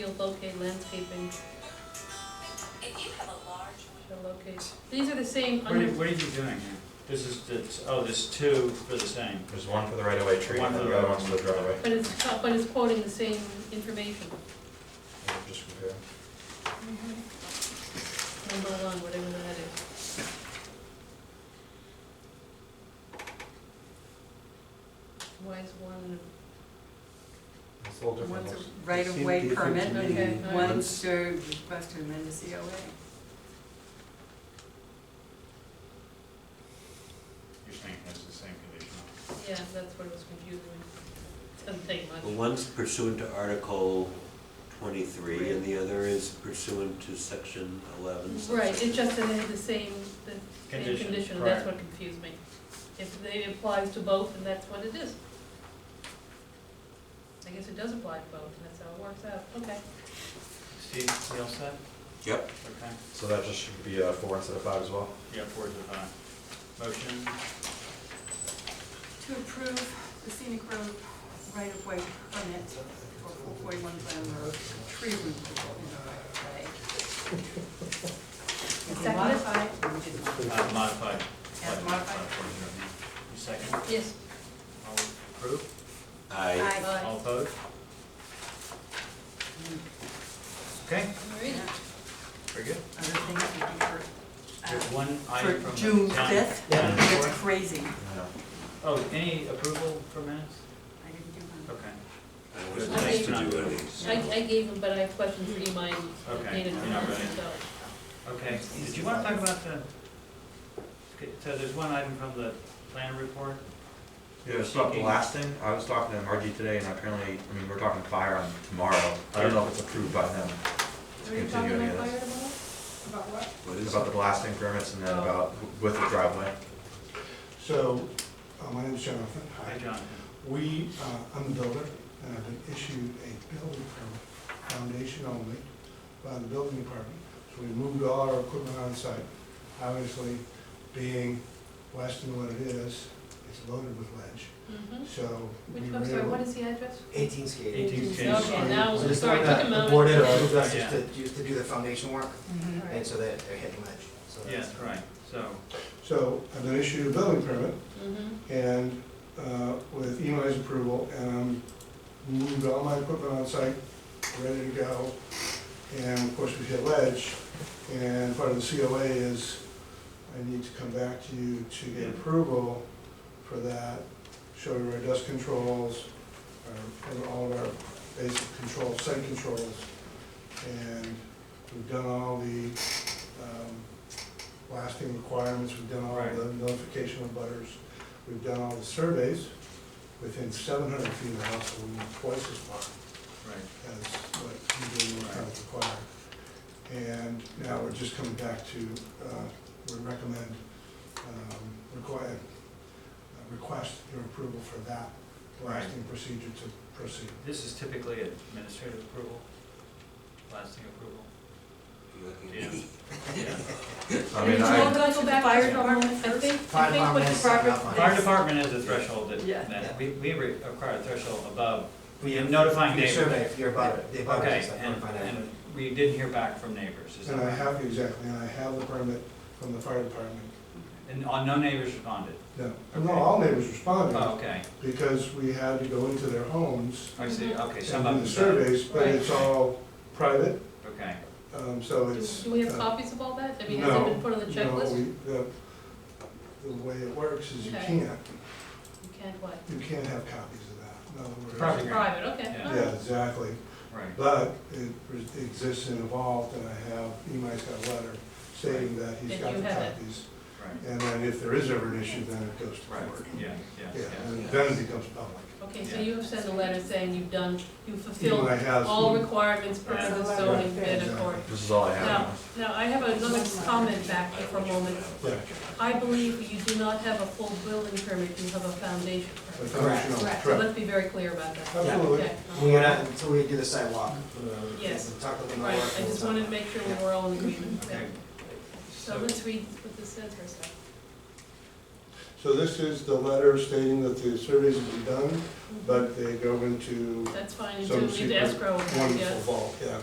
You'll locate landscaping, If you have a large shall locate, these are the same What are, under, what are you doing here? This is, this, oh, there's two for the same. There's one for the right-of-way tree, One and for the the other right- one's for the driveway. but it's, but it's quoting the same information. Just compare. Number one, whatever that is. Why is one, It's a little different. One's looks. a right-of-way Seemed different permit, to me. and Okay. one's a request to amend the COA. You're saying that's the same conditional. yeah, that's what was confusing me. Doesn't take Well, much. one's pursuant to Article twenty-three, and the other is pursuant to section eleven. Right, subsection- it's just that they had the same, the same Condition, condition, and that's right. what confused me. If they applies to both, then that's what it is. I guess it does apply to both, and that's how it works out, okay. Steve, you all set? Yep, Okay. So that just should be uh, four instead of five as well? Yeah, four to five. Motion, uh, To approve the scenic road right-of-way permit for four forty-one Glen Road, tree removal in the right-of-way. We Second. modified, we didn't modify. uh, modified. As modified. You second? All Yes. approved? I, Aye. Aye. All opposed? Okay, All right. very good. Other things we do for, There's uh, one item for from the June town- fifth, town it's report. crazy. No. Oh, any approval for minutes? I didn't do one. Okay, I was nice to do any. I, I gave him, but I have questions for you, mine, Okay, painted you're not ready. so. okay. Did you want to talk about the, okay, so there's one item from the planner report? Yeah, it's about Thinking- blasting, I was talking to Margie today, and apparently, I mean, we're talking fire on tomorrow, I don't know if it's approved by them. Are you Continue talking any about of fire this. tomorrow? Oh. About what? What is About it? the blasting permits and then about with the driveway. So, uh, my name's Jonathan. Hi, Jonathan. We, uh, I'm the builder, and I've been issued a building permit, foundation only, by the building department. So we moved all our equipment on site. Obviously, being Weston what it is, it's loaded with ledge, Mhm. so. we Which, I'm sorry, really- what is the address? 18 skate. Eighteenth Okay, King Street. now, So this sorry, one it took a that moment. Boarded or All moved out just Yeah. to, just to do the foundation work, Mm-hmm. right. and so that they're hitting ledge. So that's- Yes, right, so, So I've been issued a building permit, Mhm. and uh, with EMI's approval, and I moved all my equipment on site, ready to go. And of course, we hit ledge, and part of the COA is I need to come back to you to Yeah. get approval for that, show you our dust controls, our- and all of our basic control, site controls. And we've done all the um, blasting requirements, we've done all Right. the notification of butters. We've done all the surveys within seven hundred feet of the house, so we need twice as far right. as what you do kind of require. And now we're just coming back to, uh, we recommend, um, require, uh, request your approval for that blasting procedure to proceed. This is typically administrative approval, lasting approval. And I mean, it's not I, that I go back to Fire the- department I first? think, I Fire think what department the is proper. not mine. Fire department is a threshold Yeah. that, that, we, we re- require a threshold above, We in notifying Your survey, neighbors. if you're about, they about, Okay, it's like and, notifying and them. we didn't hear back from neighbors, is that And I right? have, exactly, and I have the permit from the fire department. And, uh, no neighbors responded? No, no, Okay. all neighbors Oh, responded, okay, because we had to go into their homes I see, okay, and some do of the them, surveys, but it's all private, okay, um, so Do it's. do we have uh, copies of all that? I mean, has it been No, put on the No, checklist? we- the, the way it works is you Okay. can't, You can't what? you can't have copies of that. In other words- Private. Okay. Private, okay, Yeah. all Yeah, right. exactly, right, but it re- exists and evolved, and I have, Imai's got a letter stating that he's That got you the have it. copies. right, And then if there is ever an issue, then it goes to right, court. yeah, yeah, Yeah, yeah. and then it becomes public. Okay, so Yeah. you have sent a letter saying you've done, you've fulfilled Imai has- all requirements per Yeah. the zoning bid Exactly. accord. this is all I Now, have. now, I have another comment back here for a moment. Yeah, I believe you do not have a full building permit, you have a foundation the permit. foundation, Correct. So correct. let's be very clear about that. Absolutely. Okay. We went out, until we do the sidewalk. uh, Yes. Talk to them. Right, I just wanted to make sure we were all in agreement. Okay. So let's read what this says for a second. So this is the letter stating that the surveys will Mm-hmm. be done, but they go into That's fine, some until we secret escrow, yeah. wonderful vault, yeah.